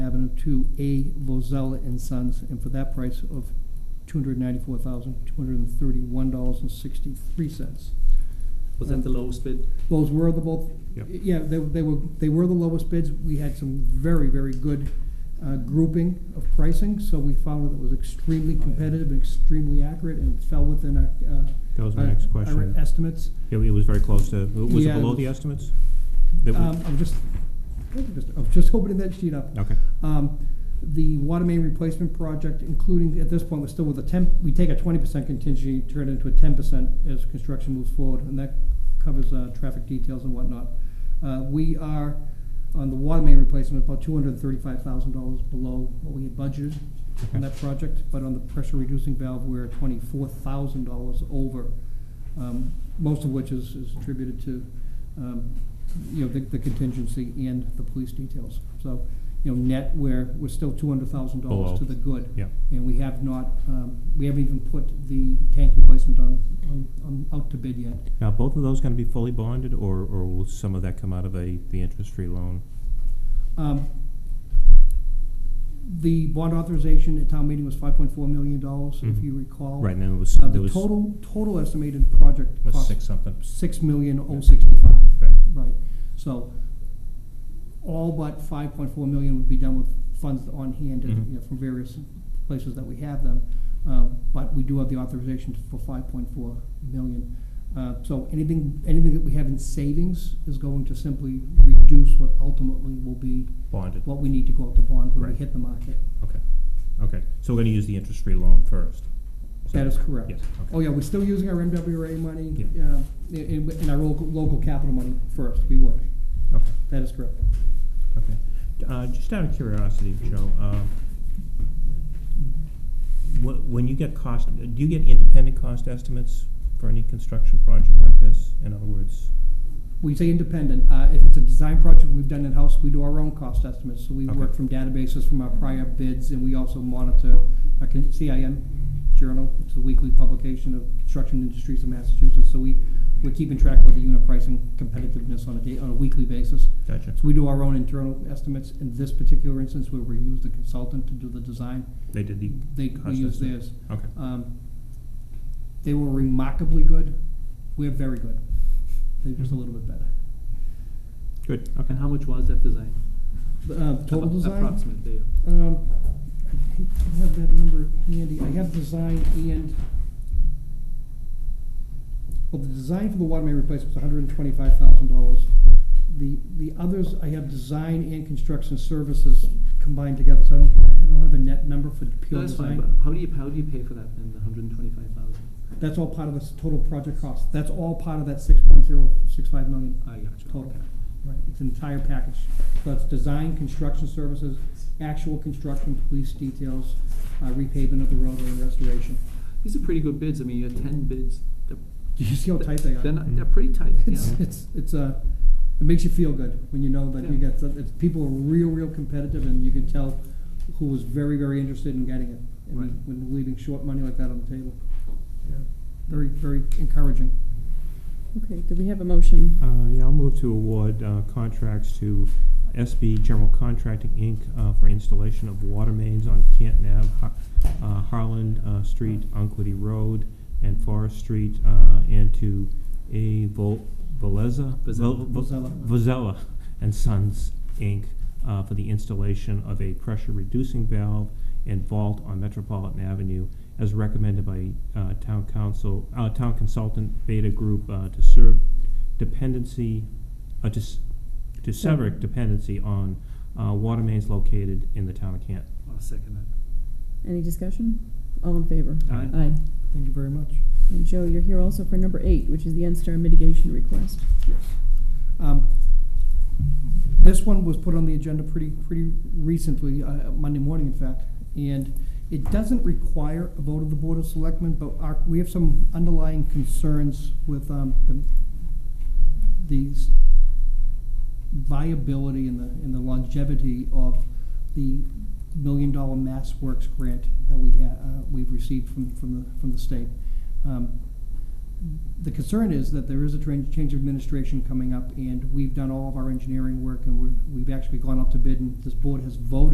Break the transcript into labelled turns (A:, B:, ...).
A: them to A. Lozella and Sons, and for that price of two hundred ninety-four thousand, two hundred and thirty-one dollars and sixty-three cents.
B: Was that the lowest bid?
A: Those were the both,
C: Yep.
A: yeah, they, they were, they were the lowest bids. We had some very, very good, uh, grouping of pricing, so we found that it was
C: Oh,
A: extremely competitive and extremely accurate and fell within our, uh.
C: That was my
A: our-
C: next
A: our
C: question.
A: Estimates.
C: It it was very close to, was it
A: Yeah.
C: below the estimates? That we-
A: Um, I'm just, I'm just- I'm just opening that sheet up.
C: Okay,
A: Um, the water main replacement project, including, at this point, we're still with a ten, we take a twenty percent contingency, turn it into a ten percent as construction moves forward, and that covers, uh, traffic details and whatnot. Uh, we are, on the water main replacement, about two hundred and thirty-five thousand dollars below what we had budgeted on
C: Okay.
A: that project, but on the pressure reducing valve, we're twenty-four thousand dollars over, um, most of which is, is attributed to, um, you know, the, the contingency and the police details. So, you know, net, we're, we're still two hundred thousand
C: Below.
A: dollars to the good.
C: yeah.
A: And we have not, um, we haven't even put the tank replacement on, on, on, out to bid yet.
C: Now, both of those gonna be fully bonded, or, or will some of that come out of a, the interest-free loan?
A: Um, The bond authorization at town meeting was five point four million dollars, if
C: Mhm.
A: you recall.
C: Right, and then it was,
A: Uh,
C: there
A: the
C: was,
A: total, total estimated project
C: was
A: cost.
C: six something.
A: Six million oh sixty-five,
C: Right.
A: right. So all but five point four million would be done with funds on hand, and,
C: Mhm.
A: you know, from various places that we have them. Um, But we do have the authorization for five point four million. Uh, So anything, anything that we have in savings is going to simply reduce what ultimately will be
C: Bonded,
A: what we need to go out to bond when we
C: Right.
A: hit the market.
C: okay, okay. So we're gonna use the interest-free loan first?
A: That is correct.
C: Yes, okay.
A: Oh, yeah, we're still using our MWRA money,
C: Yeah.
A: um, and, and our local, local capital money first, we would.
C: Okay.
A: That is correct.
C: Okay. Uh, Just out of curiosity, Joe, um, wh- when you get cost, do you get independent cost estimates for any construction project like this? In other words,
A: We say independent, uh, if it's a design project we've done in-house, we do our own cost estimates, so we
C: Okay.
A: work from databases from our prior bids, and we also monitor our con- CIM journal, it's a weekly publication of construction industries in Massachusetts, so we, we're keeping track of the unit pricing competitiveness on a day, on a weekly basis.
C: gotcha.
A: So we do our own internal estimates. In this particular instance, where we use the consultant to do the design,
C: They did the.
A: they, we
C: cost
A: use
C: estimate?
A: theirs.
C: Okay,
A: Um, They were remarkably good. We're very good. They're
B: Mm-hmm.
A: just a little bit better.
C: good, okay.
B: And how much was that design?
A: Uh, Total
B: Appro-
A: design?
B: Approximately, yeah.
A: Um, I hate to have that number handy. I have design and, well, the design for the water main replacement was hundred and twenty-five thousand dollars. The, the others, I have design and construction services combined together, so I don't, I don't have a net number for
B: No,
A: pure
B: that's fine,
A: design.
B: but how do you, how do you pay for that then, the hundred and twenty-five thousand?
A: That's all part of this total project cost. That's all part of that six point zero six five million
B: I got you.
A: total.
B: okay.
A: Right, it's an entire package. So it's design, construction services, actual construction, police details, uh, repaving of the roadway and restoration.
B: These are pretty good bids, I mean, you had ten bids. They're-
A: Do you see how tight they are?
B: They're not,
C: Mhm.
B: they're pretty tight, yeah.
A: It's, it's, it's, uh, it makes you feel good when you know that you
B: Yeah.
A: got, some- it's, people are real, real competitive and you can tell who was very, very interested in getting it.
B: Right.
A: And when leaving short money like that on the table. Very, very encouraging.
D: Okay, do we have a motion?
C: Uh, yeah, I'll move to award, uh, contracts to SB General Contracting, Inc., uh, for installation of water mains on Canton Ave, Har- uh, Harlan, uh, Street, Unquity Road, and Forest Street, uh, and to A. Vol- Veleza?
B: Vozella.
C: Vo-
A: Vozella.
C: Vozella and Sons, Inc., uh, for the installation of a pressure-reducing valve and vault on Metropolitan Avenue, as recommended by, uh, town council, uh, town consultant Beta Group, uh, to serve dependency, uh, to, s- to sever dependency on, uh, water mains located in the town of Canton.
B: I'll second that.
D: Any discussion? All in favor?
C: Aye.
D: Aye.
A: Thank you very much.
D: And Joe, you're here also for number eight, which is the NSTAR mitigation request.
A: Yes. Um, This one was put on the agenda pretty, pretty recently, uh, Monday morning, in fact, and it doesn't require a vote of the Board of Selectmen, but our, we have some underlying concerns with um, the, these viability and the, and the longevity of the million dollar Mass Works grant that we ha, uh, we've received from, from the, from the state. Um, the concern is that there is a tran- change of administration coming up, and we've done all of our engineering work, and we're, we've actually gone up to bid, and this board has voted